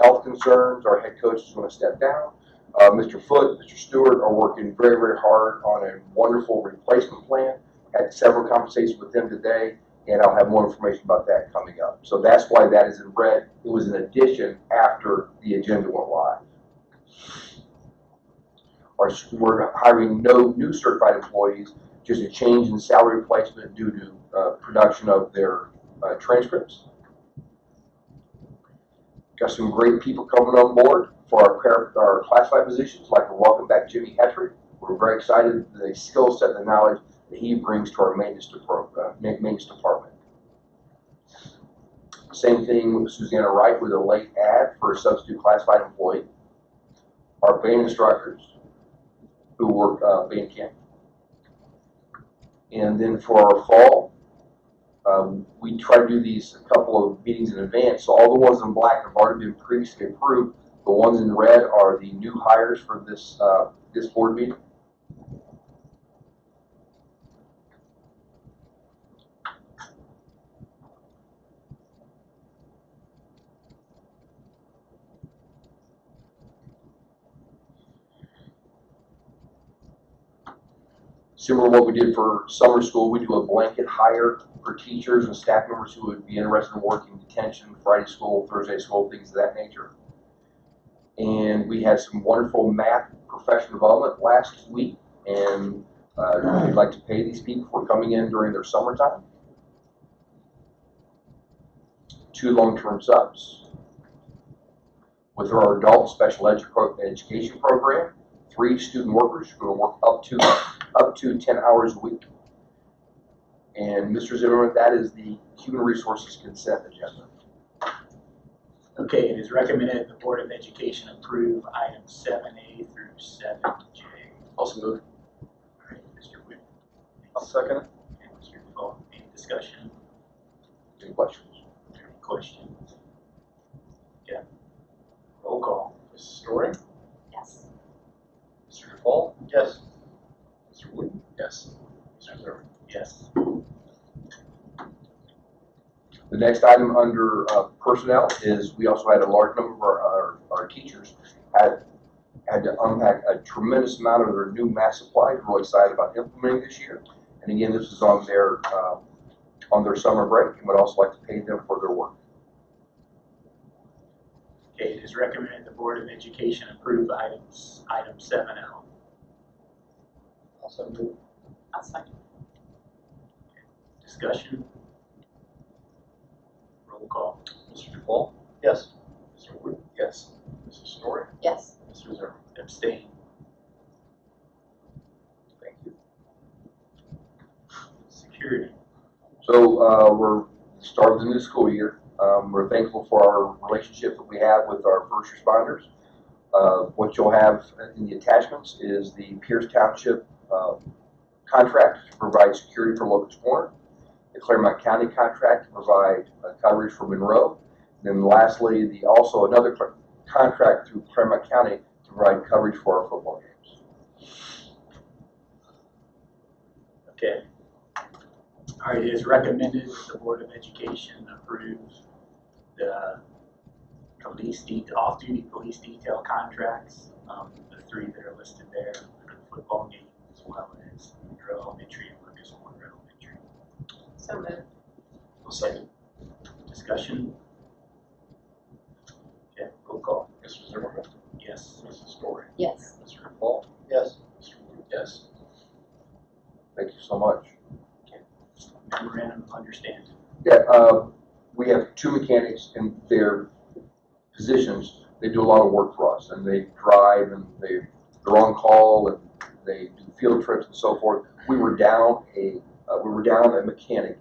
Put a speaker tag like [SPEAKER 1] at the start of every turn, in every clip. [SPEAKER 1] health concerns, our head coach is going to step down. Uh, Mr. Foot, Mr. Stewart are working very, very hard on a wonderful replacement plan. Had several conversations with them today, and I'll have more information about that coming up. So that's why that is in red. It was an addition after the agenda went live. Our, s- we're hiring no new certified employees, just a change in salary replacement due to uh, production of their uh, transcripts. Got some great people coming on board for our, par- our classified positions, like we welcome back Jimmy Hetrick. We're very excited, for the skill set, and the knowledge that he brings to our maintenance, depro- uh, ma- maintenance department. Same thing with Susanna Wright with a late ad for a substitute classified employee. Our band instructors who work uh, band camp. And then for our fall, um, we try to do these a couple of meetings in advance, so all the ones in black have already been previously approved. The ones in red are the new hires for this, uh, this board meeting. Similar to what we did for summer school, we do a blanket hire for teachers and staff members who would be interested in working detention, Friday school, Thursday school, things of that nature. And we had some wonderful math professional development last week, and uh, we'd like to pay these people for coming in during their summertime. Two long-term subs. With our adult special edu- pro- education program, three student workers who are work up to, up to ten hours a week. And Mr. Zimmerman, that is the Human Resources Consent Agenda.
[SPEAKER 2] Okay, it is recommended the Board of Education approve items seven A through seven J.
[SPEAKER 1] Also moved.
[SPEAKER 2] Mr. Whitman,
[SPEAKER 3] I'll second it.
[SPEAKER 2] and Mr. Fogel, any discussion,
[SPEAKER 1] Any questions?
[SPEAKER 2] any questions? Yeah. Roll call.
[SPEAKER 3] Mrs. Story?
[SPEAKER 4] Yes.
[SPEAKER 3] Mr. DePaul?
[SPEAKER 2] Yes.
[SPEAKER 3] Mr. Wooten?
[SPEAKER 1] Yes.
[SPEAKER 3] Mr. Zimmerman?
[SPEAKER 2] Yes.
[SPEAKER 1] The next item under uh, personnel is, we also had a large number of our, our, our teachers had, had to unpack a tremendous amount of their new math supplies, We're really excited about implementing this year. And again, this is on their, um, on their summer break, and would also like to pay them for their work.
[SPEAKER 2] Okay, it is recommended the Board of Education approve items, item seven L.
[SPEAKER 3] Also move.
[SPEAKER 4] I'll second.
[SPEAKER 2] Discussion? Roll call.
[SPEAKER 3] Mr. DePaul? Yes. Mr. Wooten?
[SPEAKER 1] Yes.
[SPEAKER 3] Mrs. Story?
[SPEAKER 4] Yes.
[SPEAKER 3] Mr. Zimmerman?
[SPEAKER 2] Abstain.
[SPEAKER 1] Thank you.
[SPEAKER 2] Security.
[SPEAKER 1] So uh, we're starting the new school year. Um, we're thankful for our relationship that we have with our first responders. Uh, what you'll have in the attachments is the Pierce Township uh, contract to provide security for Locust Corner, the Claremont County contract to provide uh, coverage for Monroe, and then lastly, the also another cl- contract through Claremont County to provide coverage for our football games.
[SPEAKER 2] Okay. All right, it is recommended that the Board of Education approve the police de, off-duty police detail contracts, um, the three that are listed there for the football game as well as Monroe Elementary and Lucas Warner Elementary.
[SPEAKER 4] So moved.
[SPEAKER 2] second. Discussion? Okay, roll call.
[SPEAKER 3] Mr. Zimmerman?
[SPEAKER 2] Yes.
[SPEAKER 3] Mrs. Story?
[SPEAKER 4] Yes.
[SPEAKER 3] Mr. DePaul? Yes. Mr. Wooten? Yes.
[SPEAKER 1] Thank you so much.
[SPEAKER 2] Memorandum of understanding.
[SPEAKER 1] Yeah, uh, we have two mechanics in their positions. They do a lot of work for us and they drive and they, they're on call and they do field trips and so forth. We were down a, uh, we were down a mechanic.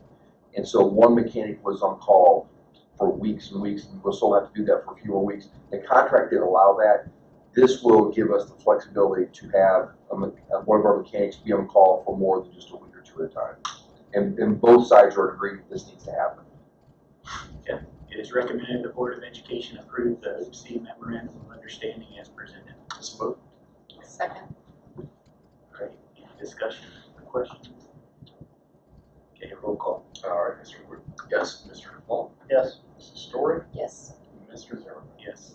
[SPEAKER 1] And so one mechanic was on call for weeks and weeks and we'll still have to do that for a few more weeks. The contract did allow that. This will give us the flexibility to have a, me- uh, one of our mechanics be on call for more than just a week or two at a time. And, and both sides are agreeing that this needs to happen.
[SPEAKER 2] It is recommended the Board of Education approve the OPC memorandum of understanding as presented.
[SPEAKER 4] Second.
[SPEAKER 2] Great. Any discussion or questions? Okay, roll call.
[SPEAKER 3] All right, Mr. Wooten? Yes. Mr. DePaul? Yes. Mrs. Story?
[SPEAKER 4] Yes.
[SPEAKER 3] Mr. Zimmerman?
[SPEAKER 2] Yes.